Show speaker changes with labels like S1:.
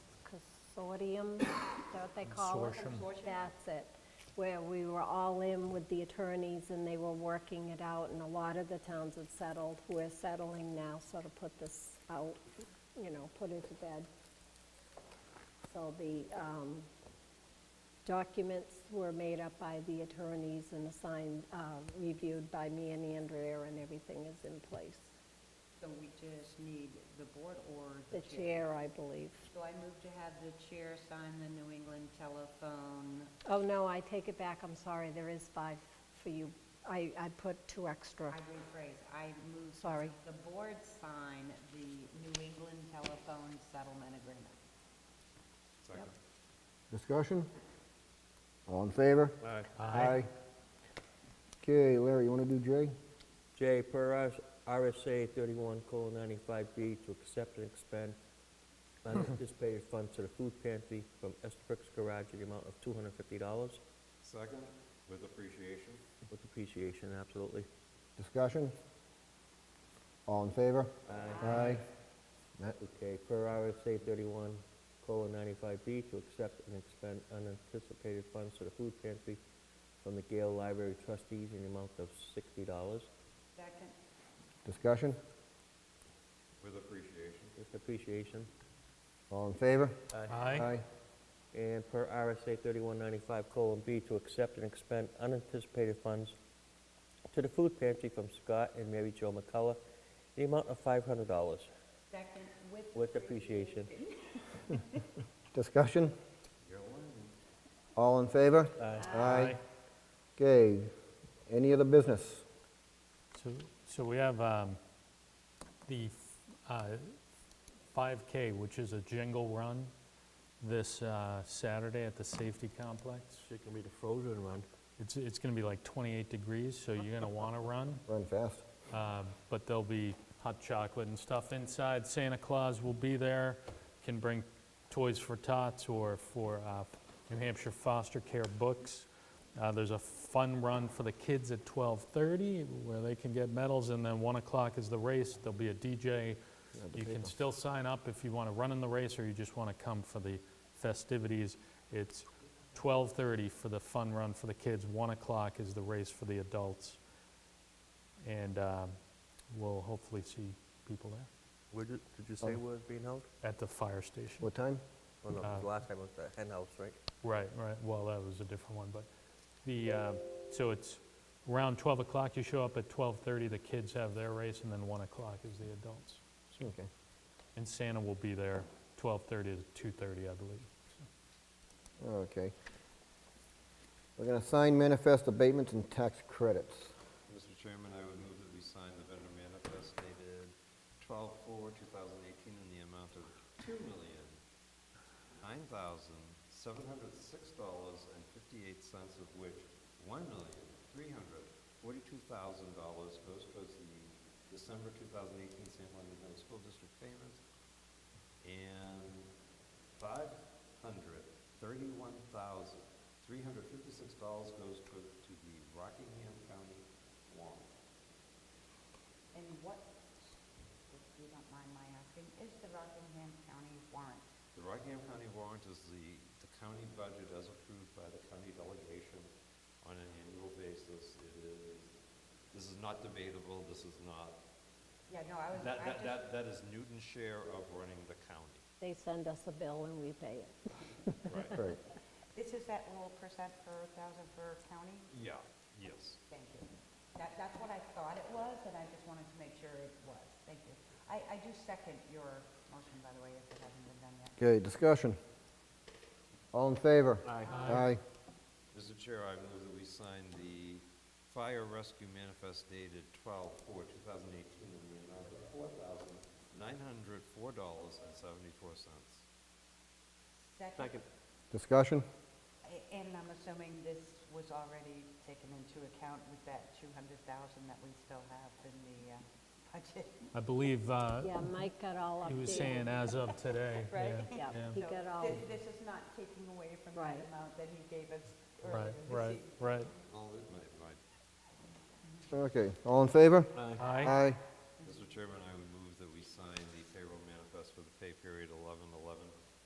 S1: consortium, is that what they call it?
S2: Consortium.
S1: That's it, where we were all in with the attorneys and they were working it out, and a lot of the towns had settled. We're settling now, so to put this out, you know, put it to bed. So the um, documents were made up by the attorneys and assigned, uh, reviewed by me and Andrea, and everything is in place.
S3: So we just need the board or
S1: The chair, I believe.
S3: So I move to have the chair sign the New England telephone.
S1: Oh, no, I take it back, I'm sorry, there is five for you. I, I put two extra.
S3: I rephrase, I move.
S1: Sorry.
S3: The board sign the New England telephone settlement agreement.
S1: Yep.
S4: Discussion? All in favor? Aye. Okay, Larry, you want to do J?
S5: J, per us- RSA 31:95B, to accept and expend unanticipated funds to the food pantry from Estabrook's Garage in the amount of $250
S2: Second, with appreciation.
S5: with appreciation, absolutely.
S4: Discussion? All in favor? Aye. That-
S5: Okay, per RSA 31:95B, to accept and expend unanticipated funds to the food pantry from the Gale Library trustees in the amount of $60
S3: Second,
S4: Discussion?
S2: With appreciation.
S5: with appreciation.
S4: All in favor?
S6: Aye.
S5: And per RSA 3195:B, to accept and expend unanticipated funds to the food pantry from Scott and Mary Jo McCullough, the amount of $500
S3: second with.
S5: with appreciation.
S4: Discussion? All in favor? Aye. Okay, any other business?
S6: So, so we have um, the uh, 5K, which is a jingle run, this uh, Saturday at the safety complex.
S5: It's gonna be the frozen run.
S6: It's, it's going to be like 28 degrees, so you're going to want to run,
S4: Run fast.
S6: uh, but there'll be hot chocolate and stuff inside. Santa Claus will be there, can bring toys for tots or for uh, New Hampshire foster care books. Uh, There's a fun run for the kids at 12:30 where they can get medals, and then 1 o'clock is the race. There'll be a DJ. You can still sign up if you want to run in the race or you just want to come for the festivities. It's 12:30 for the fun run for the kids, 1 o'clock is the race for the adults, and um, we'll hopefully see people there
S5: Where did, did you say where it's being held?
S6: at the fire station.
S4: What time?
S5: Oh, no, 'cause last time it was the hen house, right?
S6: Right, right, well, that was a different one, but the, uh, so it's around 12 o'clock, you show up at 12:30, the kids have their race, and then 1 o'clock is the adults.
S4: Okay.
S6: And Santa will be there 12:30 to 2:30, I believe.
S4: Okay. We're going to sign manifest abatements and tax credits.
S2: Mr. Chairman, I would move that we sign the vendor manifest dated 12/4/2018 in the amount of $2,009,706.58, of which $1,342,000 goes towards the December 2018 San Juan Middle School District payments, and Five hundred thirty-one thousand three hundred fifty-six dollars goes to, to the Rockingham County warrant.
S3: And what, if you don't mind my asking, is the Rockingham County warrant?
S2: The Rockingham County warrant is the, the county budget as approved by the county delegation on an annual basis. It is, this is not debatable, this is not,
S3: Yeah, no, I was,
S2: that, that,
S3: I just,
S2: that, that is Newton's share of running the county.
S1: They send us a bill and we pay it.
S2: Right.
S4: Right.
S3: this is that little percent per thousand per county?
S2: Yeah, yes.
S3: Thank you. That, that's what I thought it was, and I just wanted to make sure it was. Thank you. I, I do second your motion, by the way, if it hasn't been done yet.
S4: Okay, discussion? All in favor? Aye. Aye.
S2: Mr. Chair, I move that we sign the fire rescue manifest dated 12/4/2018 in the amount of $4,904.74.
S3: Second.
S4: Discussion?
S3: A- And I'm assuming this was already taken into account with that 200,000 that we still have in the uh, budget.
S6: I believe uh,
S1: Yeah, Mike got all updated.
S6: he was saying as of today.
S3: Right.
S1: Yeah,
S6: yeah, yeah.
S1: he
S3: So
S1: got all,
S3: thi- This is not taking away from that
S1: Right.
S3: amount that he gave us earlier
S6: Right,
S3: this
S6: right,
S3: evening.
S6: right.
S2: All it might- might-
S4: Okay, all in favor?
S6: Aye.
S4: Aye.